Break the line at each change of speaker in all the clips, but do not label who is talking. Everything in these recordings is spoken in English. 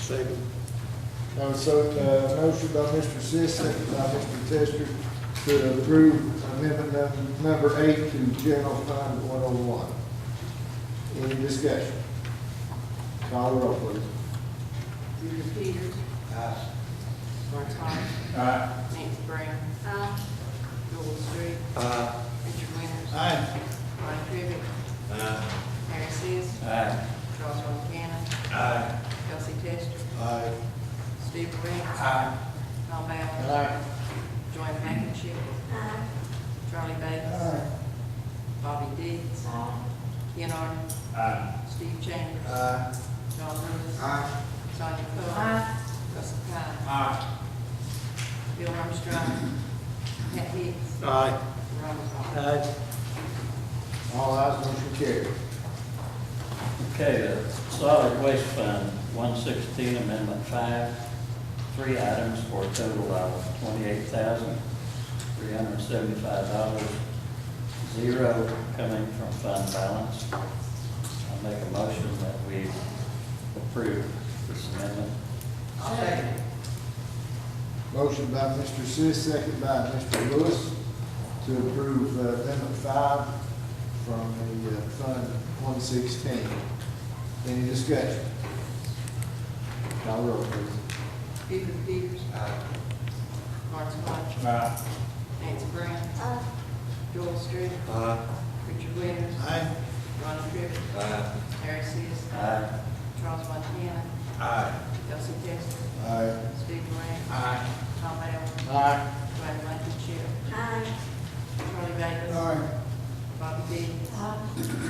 Second.
Uh, So, uh, motion by Mr. Sis, second by Mr. Tester to approve amendment num- number eight to general fund one oh one. Any discussion? Call the roll, please.
Peter Peters.
Aye.
Bart Todd.
Aye.
Nancy Brown. Aye. Joel Street.
Aye.
Richard Winters.
Aye.
Ronnie Crivitt.
Aye.
Harry Seas.
Aye.
Charles Earl Cannon.
Aye.
Elsie Tester.
Aye.
Steve Ray.
Aye.
Tom Allen.
Aye.
Joanne Lichtenstein. Charlie Bates. Bobby Dees. Ken Arden.
Aye.
Steve Chambers.
Aye.
John Lewis.
Aye.
Sonia Coler. Russell Cott.
Aye.
Bill Armstrong. Pat Hicks.
Aye.
Ronald Todd.
Aye.
All eyes motion carried.
Okay, the solid waste fund, one sixteen amendment five, three items for a total of twenty-eight thousand, three hundred and seventy-five dollars. Zero coming from fund balance. I make a motion that we approve this amendment.
Motion by Mr. Sis, second by Mr. Lewis to approve uh, amendment five from the uh, Fund one sixteen. Any discussion? Call the roll, please.
Peter Peters. Martin Hodge.
Aye.
Nancy Brown. Joel Street.
Aye.
Richard Winters.
Aye.
Ronald Trivitt.
Aye.
Harry Seas.
Aye.
Charles Montana.
Aye.
Elsie Testor.
Aye.
Steve Ray.
Aye.
Tom Allen.
Aye.
Joanne Lichtenstein. Charlie Bates.
Aye.
Bobby Dee.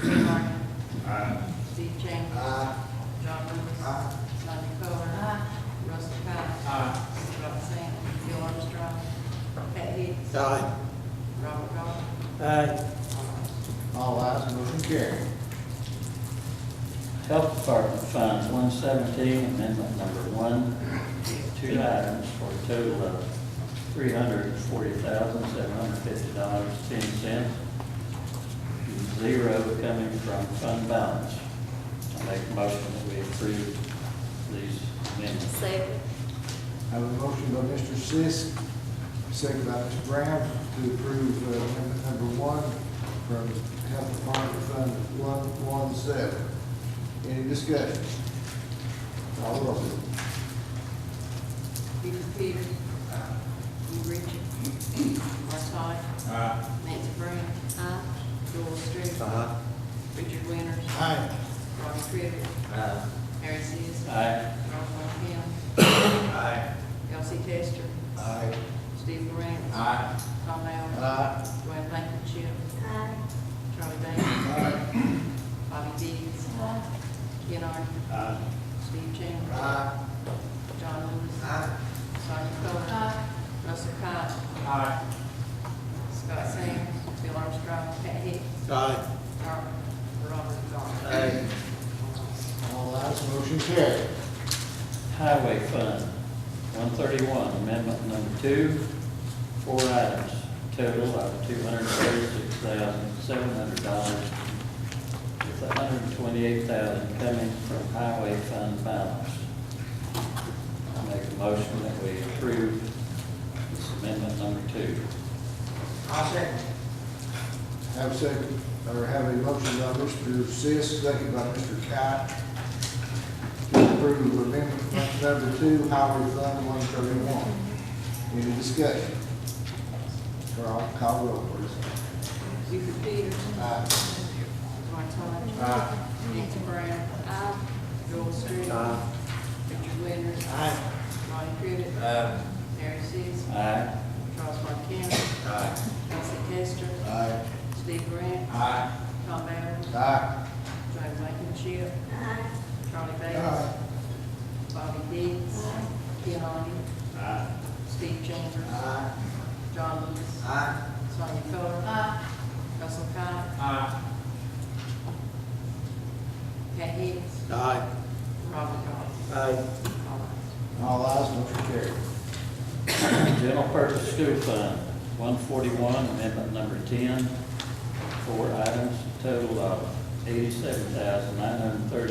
Ken Arden.
Aye.
Steve Chambers.
Aye.
John Lewis.
Aye.
Sonia Coler. Russell Cott.
Aye.
Robert Sands. Bill Armstrong. Pat Hicks.
Aye.
Robert Goff.
Aye.
All eyes motion carried.
Health Department Fund, one seventeen, amendment number one, two items for a total of three hundred and forty thousand, seven hundred and fifty dollars, ten cents. Zero coming from fund balance. I make a motion that we approve these amendments.
Second.
I have a motion by Mr. Sis, second by Ms. Brown, to approve uh, amendment number one from Health Department Fund one one seven. Any discussion? Call the roll.
Peter Peters. Lee Richard. Mark Todd.
Aye.
Nancy Brown.
Aye.
Joel Street.
Aye.
Richard Winters.
Aye.
Ronnie Crivitt.
Aye.
Harry Seas.
Aye.
Ronald Montana.
Aye.
Elsie Tester.
Aye.
Steve Ray.
Aye.
Tom Allen.
Aye.
Dwayne Blankenship. Charlie Bates. Bobby Dees. Ken Arden.
Aye.
Steve Chambers.
Aye.
John Lewis. Sonia Coler. Russell Cott.
Aye.
Scott Sands. Bill Armstrong. Pat Hicks.
Aye.
Robert Robert Goff.
Aye.
All ayes motion carried.
Highway Fund, one thirty-one, amendment number two, four items, total of two hundred thirty-six thousand, seven hundred dollars, with $128,000 coming from highway fund balance. I make a motion that we approve this amendment number two.
Have a second, or have a motion by Mr. Sis, second by Mr. Kite, to approve amendment number two, Highway Fund one thirty-one. Any discussion? Carl, call roll, please.
Buford Peters.
Aye.
Martin Hodge.
Aye.
Nancy Brown. Joel Street.
Aye.
Richard Winters.
Aye.
Ronnie Crivitt.
Aye.
Harry Seas.
Aye.
Charles Montana.
Aye.
Elsie Testor.
Aye.
Steve Grant.
Aye.
Tom Allen.
Aye.
Joe Blankenship. Charlie Bates.
Aye.
Bobby Dees. Ken Arden.
Aye.
Steve Chambers.
Aye.
John Lewis.
Aye.
Sonia Coler. Russell Cott.
Aye.
Pat Hicks.
Aye.
Robert Goff.
Aye.
All ayes.
All ayes, motion carried.
General Purpose School Fund, one forty-one, amendment number ten, four items, total of eighty-seven thousand, nine hundred thirty